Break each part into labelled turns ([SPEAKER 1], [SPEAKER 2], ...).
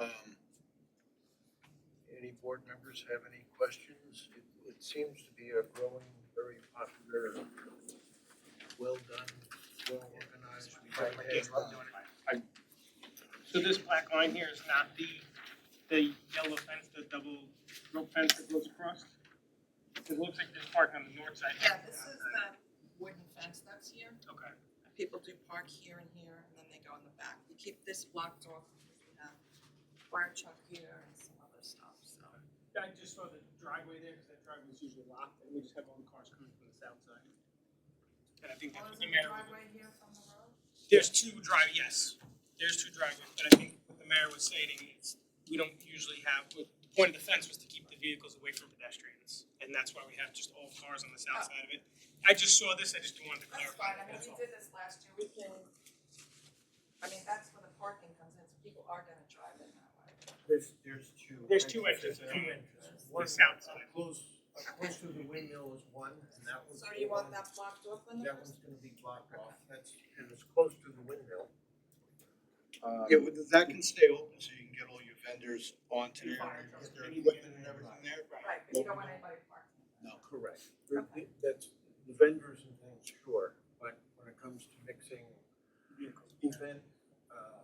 [SPEAKER 1] Um, Any board members have any questions? It- It seems to be a growing, very popular, well done, well organized. We don't have, uh,
[SPEAKER 2] So this black line here is not the, the yellow fence, the double rope fence that goes across? It looks like there's parking on the north side.
[SPEAKER 3] Yeah, this is that wooden fence that's here.
[SPEAKER 2] Okay.
[SPEAKER 3] And People do park here and here, and then they go in the back. We keep this blocked off because we have fire truck here and some other stuff, so.
[SPEAKER 2] I just saw the driveway there, because that driveway is usually locked, and we just have all the cars coming from the south side. And I think
[SPEAKER 3] Oh,
[SPEAKER 2] that's what the mayor,
[SPEAKER 3] here from the road?
[SPEAKER 2] there's two drive, yes, there's two driveways, but I think what the mayor was stating is, we don't usually have, the point of the fence was to keep the vehicles away from pedestrians, and that's why we have just all cars on the south side of it. I just saw this, I just wanted to
[SPEAKER 3] Ah. That's
[SPEAKER 2] clarify,
[SPEAKER 3] fine, I mean,
[SPEAKER 2] that's
[SPEAKER 3] we
[SPEAKER 2] all.
[SPEAKER 3] did this last year, we can, I mean, that's where the parking comes in, so people are gonna drive in that way.
[SPEAKER 1] There's, there's two.
[SPEAKER 2] There's two entrances, two entrances. The south
[SPEAKER 1] One,
[SPEAKER 2] side.
[SPEAKER 1] up close, up close to the windmill is one, and that one's.
[SPEAKER 3] So do you want
[SPEAKER 1] the one-
[SPEAKER 3] that blocked off in the
[SPEAKER 1] That
[SPEAKER 3] first?
[SPEAKER 1] one's gonna be blocked off, that's, and it's close to the windmill.
[SPEAKER 4] Um,
[SPEAKER 5] Yeah, well, that can stay open so you can get all your vendors onto there,
[SPEAKER 2] Fire
[SPEAKER 5] and
[SPEAKER 2] trucks,
[SPEAKER 5] get their
[SPEAKER 2] anything
[SPEAKER 5] equipment
[SPEAKER 2] in
[SPEAKER 5] and
[SPEAKER 2] there.
[SPEAKER 5] everything there.
[SPEAKER 3] Right, but you don't want anybody parking.
[SPEAKER 5] No.
[SPEAKER 1] Correct. That's, the vendors and things, sure, but when it comes to mixing event, uh,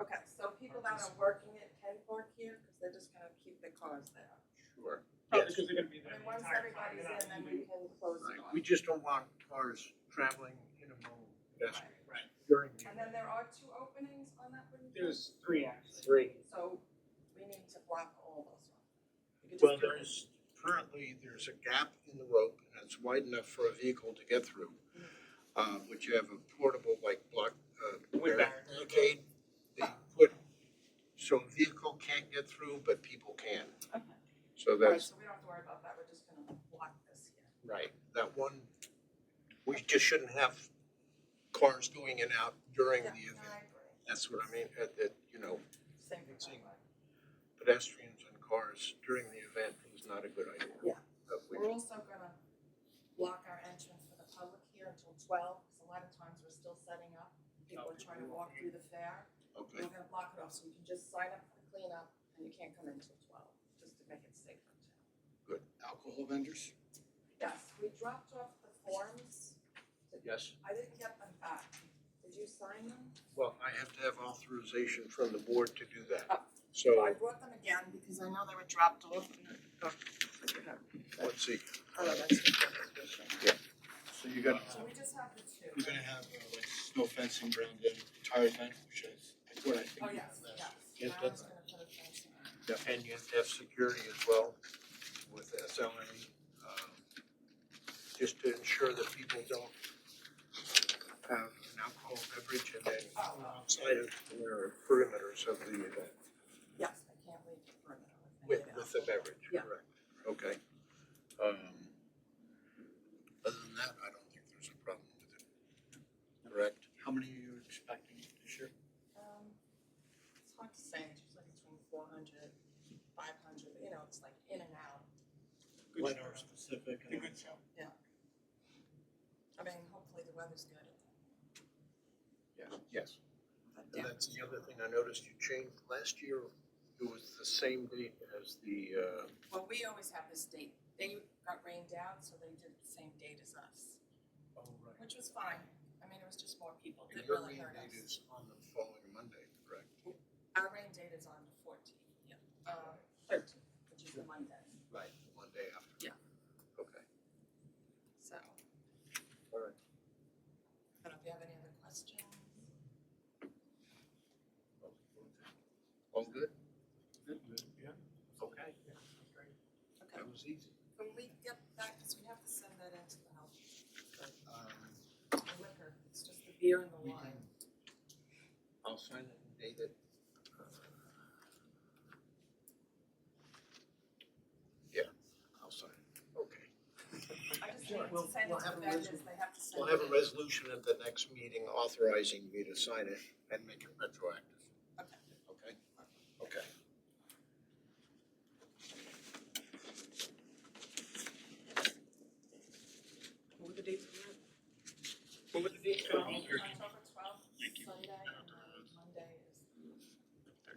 [SPEAKER 3] Okay, so people that are working it can park here, because they're just gonna keep their cars there.
[SPEAKER 1] sure.
[SPEAKER 2] Probably because they're gonna be
[SPEAKER 3] And
[SPEAKER 2] there
[SPEAKER 3] then
[SPEAKER 2] the
[SPEAKER 3] once
[SPEAKER 2] entire time.
[SPEAKER 3] everybody's
[SPEAKER 2] They're not
[SPEAKER 3] in, then we
[SPEAKER 2] leaving.
[SPEAKER 3] can close
[SPEAKER 1] Right,
[SPEAKER 3] it off.
[SPEAKER 1] we just don't want cars traveling in among pedestrians
[SPEAKER 2] Right.
[SPEAKER 1] during the.
[SPEAKER 3] And then there are two openings on that room?
[SPEAKER 2] There's three actually.
[SPEAKER 1] Three.
[SPEAKER 3] So we need to block all those ones. We could just
[SPEAKER 1] Well,
[SPEAKER 3] do-
[SPEAKER 1] there's, currently, there's a gap in the rope, and it's wide enough for a vehicle to get through.
[SPEAKER 3] Mm.
[SPEAKER 1] Uh, which you have a portable, like, block, uh,
[SPEAKER 2] Wind barrier.
[SPEAKER 1] barricade, they put, so a vehicle can't get through, but people can.
[SPEAKER 3] Okay.
[SPEAKER 1] So
[SPEAKER 3] All right,
[SPEAKER 1] that's,
[SPEAKER 3] so we don't have to worry about that, we're just gonna block this here.
[SPEAKER 1] right, that one, we just shouldn't have cars going in and out during the
[SPEAKER 3] Yeah,
[SPEAKER 1] event.
[SPEAKER 3] I agree.
[SPEAKER 1] That's what I mean, uh, that, you know,
[SPEAKER 3] Same
[SPEAKER 1] Let's
[SPEAKER 3] thing.
[SPEAKER 1] see. pedestrians and cars during the event is not a good idea.
[SPEAKER 3] Yeah.
[SPEAKER 1] But we-
[SPEAKER 3] We're also gonna block our entrance for the public here until twelve, because a lot of times we're still setting up. People are trying to walk through the fair.
[SPEAKER 1] Okay,
[SPEAKER 3] We're gonna block it off, so you can just sign up for the cleanup, and you can't come in until twelve, just to make it safe for town.
[SPEAKER 5] Alcohol vendors?
[SPEAKER 3] Yes, we dropped off the forms,
[SPEAKER 1] yes,
[SPEAKER 3] I didn't get them back. Did you sign them?
[SPEAKER 1] well, I have to have authorization from the board to do that.
[SPEAKER 3] Oh.
[SPEAKER 1] So,
[SPEAKER 3] I brought them again because I know they were dropped off.
[SPEAKER 1] let's see,
[SPEAKER 3] Oh, that's So
[SPEAKER 5] So you're gonna have,
[SPEAKER 3] we just have the
[SPEAKER 5] you're
[SPEAKER 3] two.
[SPEAKER 5] gonna have uh, like snow fencing around the entire event, which is, that's what I
[SPEAKER 3] Oh,
[SPEAKER 5] think you have
[SPEAKER 3] yes,
[SPEAKER 5] last.
[SPEAKER 3] yes.
[SPEAKER 1] Yes,
[SPEAKER 3] I was
[SPEAKER 1] that's-
[SPEAKER 3] gonna put a fence around.
[SPEAKER 1] and you have to have security as well with SLA. um, Just to ensure that people don't have an alcohol beverage and then
[SPEAKER 2] Um,
[SPEAKER 3] Oh, well,
[SPEAKER 1] outside of their perimeters of the event
[SPEAKER 3] yes, I can't leave the perimeter.
[SPEAKER 1] with, with the beverage,
[SPEAKER 3] Yeah.
[SPEAKER 1] correct? Okay. Um, Other than that, I don't think there's a problem with it, correct?
[SPEAKER 5] How many are you expecting this year?
[SPEAKER 3] Um, It's hard to say, it's usually between four hundred, five hundred, you know, it's like in and out.
[SPEAKER 2] Good
[SPEAKER 5] What
[SPEAKER 2] show.
[SPEAKER 5] are specific?
[SPEAKER 2] The good show.
[SPEAKER 3] I mean, hopefully the weather's good.
[SPEAKER 1] Yes.
[SPEAKER 3] But
[SPEAKER 1] And
[SPEAKER 3] yeah,
[SPEAKER 1] that's the other thing I noticed you changed, last year it was the same date as the, uh,
[SPEAKER 3] well, we always have this date. They got rained out, so they did the same date as us.
[SPEAKER 1] oh, right.
[SPEAKER 3] Which was fine. I mean, it was just more people.
[SPEAKER 1] And
[SPEAKER 3] It
[SPEAKER 1] your
[SPEAKER 3] really
[SPEAKER 1] rain
[SPEAKER 3] hurt
[SPEAKER 1] date
[SPEAKER 3] us.
[SPEAKER 1] is on the following Monday, correct?
[SPEAKER 3] Our rain date is on the fourteenth, yeah, uh, thirteenth, which is the Monday,
[SPEAKER 1] Right. the Monday after.
[SPEAKER 3] Yeah.
[SPEAKER 1] Okay,
[SPEAKER 3] so.
[SPEAKER 1] all right.
[SPEAKER 3] I don't know if you have any other questions?
[SPEAKER 1] All good?
[SPEAKER 2] Good, yeah.
[SPEAKER 1] Okay,
[SPEAKER 3] Okay,
[SPEAKER 1] that was easy.
[SPEAKER 3] when we get that, because we have to send that into the health,
[SPEAKER 1] Um,
[SPEAKER 3] the liquor, it's just the beer and the
[SPEAKER 1] We
[SPEAKER 3] wine.
[SPEAKER 1] I'll sign it and date it. uh, Yeah, I'll sign it, okay.
[SPEAKER 3] I just
[SPEAKER 1] Sure,
[SPEAKER 3] need to
[SPEAKER 1] we'll-
[SPEAKER 3] send it
[SPEAKER 1] we'll
[SPEAKER 3] to
[SPEAKER 1] have
[SPEAKER 3] the
[SPEAKER 1] a
[SPEAKER 3] vendors,
[SPEAKER 1] resol-
[SPEAKER 3] they have to send it.
[SPEAKER 1] We'll have a
[SPEAKER 3] in.
[SPEAKER 1] resolution at the next meeting authorizing me to sign it and make it retroactive.